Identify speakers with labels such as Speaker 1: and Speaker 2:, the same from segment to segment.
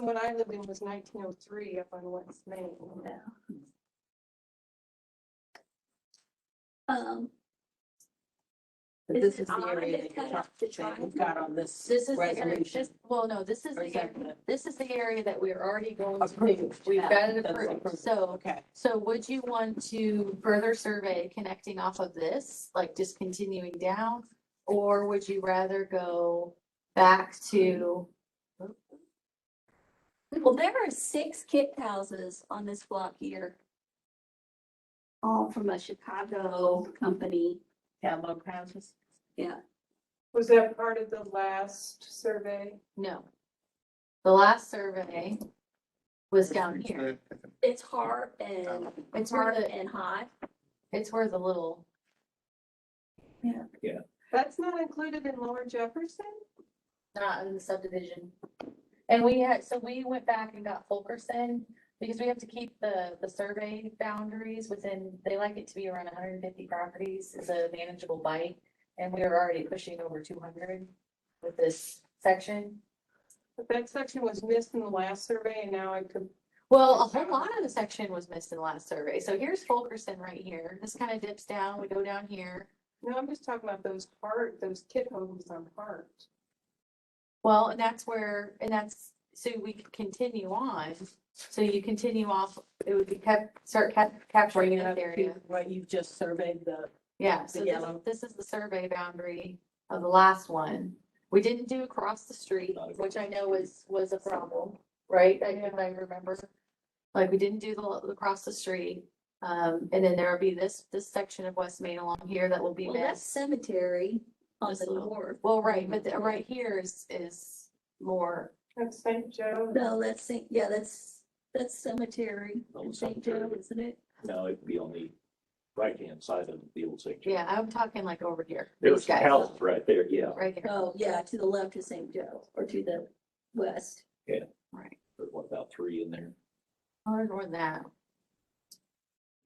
Speaker 1: When I lived in was nineteen oh three up on West Main.
Speaker 2: Um,
Speaker 3: But
Speaker 2: This
Speaker 3: this is the
Speaker 2: is
Speaker 3: area
Speaker 2: on
Speaker 3: that
Speaker 2: the
Speaker 3: you're talking,
Speaker 2: cut-off
Speaker 3: that we've got on this
Speaker 2: this is the area,
Speaker 3: resolution.
Speaker 2: this- well, no, this is
Speaker 3: Or
Speaker 2: the,
Speaker 3: is that
Speaker 2: area-
Speaker 3: the
Speaker 2: this is the area that we're already going to. do.
Speaker 3: Approved.
Speaker 2: We've
Speaker 3: Yeah,
Speaker 2: got it
Speaker 3: that's
Speaker 2: approved,
Speaker 3: approved.
Speaker 2: so,
Speaker 3: Okay,
Speaker 2: so would you want to further survey connecting off of this, like just continuing down? Or would you rather go back to?
Speaker 4: Well, there are six kit houses on this block here. All from a Chicago company.
Speaker 3: Camelot houses.
Speaker 1: Was that part of the last survey?
Speaker 2: No. The last survey was down here.
Speaker 4: It's Hart and,
Speaker 2: It's where
Speaker 4: Hart
Speaker 2: the,
Speaker 4: and Hot.
Speaker 2: it's where the little,
Speaker 1: That's not included in Lower Jefferson?
Speaker 2: not in the subdivision. And we had, so we went back and got Fulkerson, because we have to keep the, the survey boundaries within, they like it to be around hundred and fifty properties is a manageable bite. And we were already pushing over two hundred with this section.
Speaker 1: But that section was missed in the last survey and now I could,
Speaker 2: Well, a whole lot of the section was missed in the last survey. So here's Fulkerson right here. This kind of dips down, we go down here.
Speaker 1: no, I'm just talking about those part, those kid homes on Hart.
Speaker 2: Well, and that's where, and that's, so we could continue on, so you continue off, it would be kept, start cap- capturing
Speaker 3: Bring it
Speaker 2: this
Speaker 3: up
Speaker 2: area.
Speaker 3: to what you've just surveyed the,
Speaker 2: Yeah, so
Speaker 3: the
Speaker 2: this-
Speaker 3: yellow.
Speaker 2: this is the survey boundary of the last one. We didn't do across the street,
Speaker 5: Not across
Speaker 2: which I know was, was a problem, right? I, if I remember. Like, we didn't do the, lo- across the street, um, and then there'll be this, this section of West Main along here that will be
Speaker 4: Well, that's
Speaker 2: missed.
Speaker 4: cemetery on
Speaker 2: This
Speaker 4: the
Speaker 2: little-
Speaker 4: north.
Speaker 2: Well, right, but the- right here is, is more,
Speaker 1: That's St. Joe.
Speaker 4: No, that's, Saint- yeah, that's, that's cemetery.
Speaker 5: Old
Speaker 4: in St.
Speaker 5: cemetery.
Speaker 4: Joe, isn't it?
Speaker 5: No, it'd be on the right-hand side of the old section.
Speaker 2: yeah, I'm talking like over here.
Speaker 5: There's
Speaker 2: These
Speaker 5: some
Speaker 2: guys.
Speaker 5: houses right there, yeah.
Speaker 2: Right here.
Speaker 4: Oh, yeah, to the left of St. Joe or to the west.
Speaker 5: There's what, about three in there?
Speaker 2: Or more than that.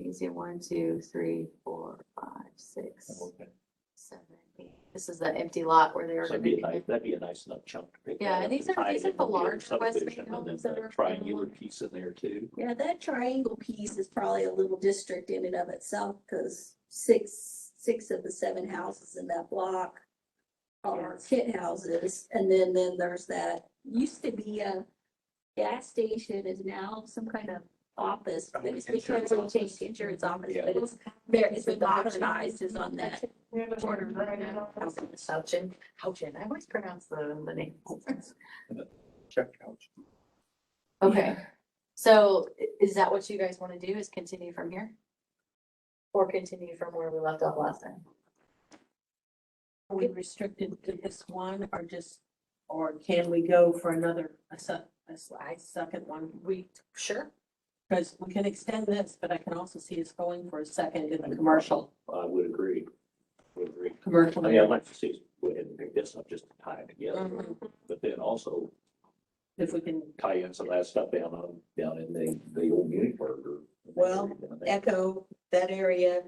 Speaker 2: Easy, one, two, three, four, five, six,
Speaker 5: Okay.
Speaker 2: seven, eight. This is the empty lot where they were
Speaker 5: So
Speaker 2: gonna.
Speaker 5: that'd be a
Speaker 2: do
Speaker 5: nice,
Speaker 2: it.
Speaker 5: that'd be a nice enough chunk to pick.
Speaker 2: Yeah, and
Speaker 5: that up
Speaker 2: these are-
Speaker 5: tie
Speaker 2: these
Speaker 5: it
Speaker 2: are the
Speaker 5: into your
Speaker 2: larger West Main
Speaker 5: subdivision, and
Speaker 2: homes
Speaker 5: then
Speaker 2: that
Speaker 5: the
Speaker 2: are-
Speaker 5: Triangular piece in there too.
Speaker 4: Yeah, that triangle piece is probably a little district in and of itself, because six, six of the seven houses in that block are kit houses, and then, then there's that, used to be a gas station is now some kind of office, but it's because we changed the insurance office,
Speaker 5: Yeah.
Speaker 4: but it's, there, it's been modernized, is on that
Speaker 1: Yeah, that's
Speaker 4: corner
Speaker 1: right.
Speaker 4: right now.
Speaker 2: Houchin, Houchin, I always pronounce the, the name.
Speaker 5: Check out.
Speaker 2: Okay, so i- is that what you guys wanna do, is continue from here? Or continue from where we left off last time?
Speaker 3: Are we restricted to this one or just, or can we go for another, a su- a slight second one? We,
Speaker 2: Sure.
Speaker 3: because we can extend this, but I can also see us going for a second in the commercial,
Speaker 5: I would agree. Would agree. I
Speaker 3: commercial.
Speaker 5: mean, I'd like to see, us go ahead and pick this up just to tie it together,
Speaker 2: Mm-hmm.
Speaker 3: Mhm.
Speaker 5: but then also
Speaker 3: If we can
Speaker 5: tie in some of that stuff down on, down in the, the old Uniburg or.
Speaker 3: Well, echo that area,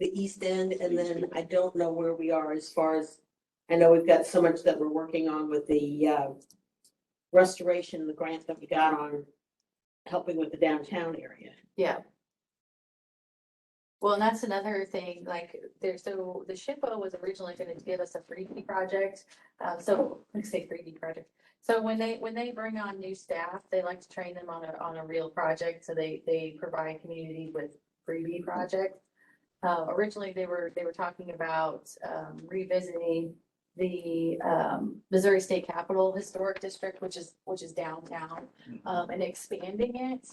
Speaker 3: the east end, and then I don't know where we are as far as, I know we've got so much that we're working on with the, uh, restoration, the grant that we got on helping with the downtown area.
Speaker 2: Yeah. Well, and that's another thing, like, there, so the SHPO was originally gonna give us a three D project, uh, so, let's say three D project. So when they, when they bring on new staff, they like to train them on a, on a real project, so they, they provide community with three D projects. Uh, originally, they were, they were talking about, um, revisiting the, um, Missouri State Capitol Historic District, which is, which is downtown, um, and expanding it.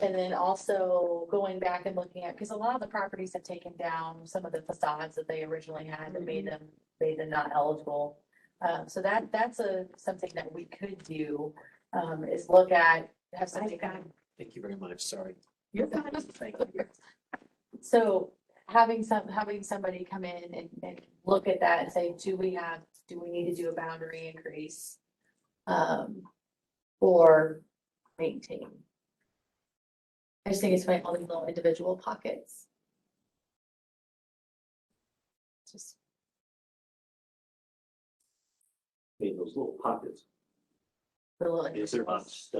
Speaker 2: And then also going back and looking at, because a lot of the properties have taken down some of the facades that they originally had that made them, made them not eligible. Um, so that, that's a, something that we could do, um, is look at, have something kind of
Speaker 6: Thank you very much, sorry.
Speaker 2: you're fine. Thank you. So having some, having somebody come in and, and look at that and say, do we have, do we need to do a boundary increase? Um, or maintain? I just think it's funny, all these little individual pockets. Just
Speaker 5: In those little pockets,
Speaker 2: the little.
Speaker 5: is there
Speaker 2: individuals.
Speaker 5: not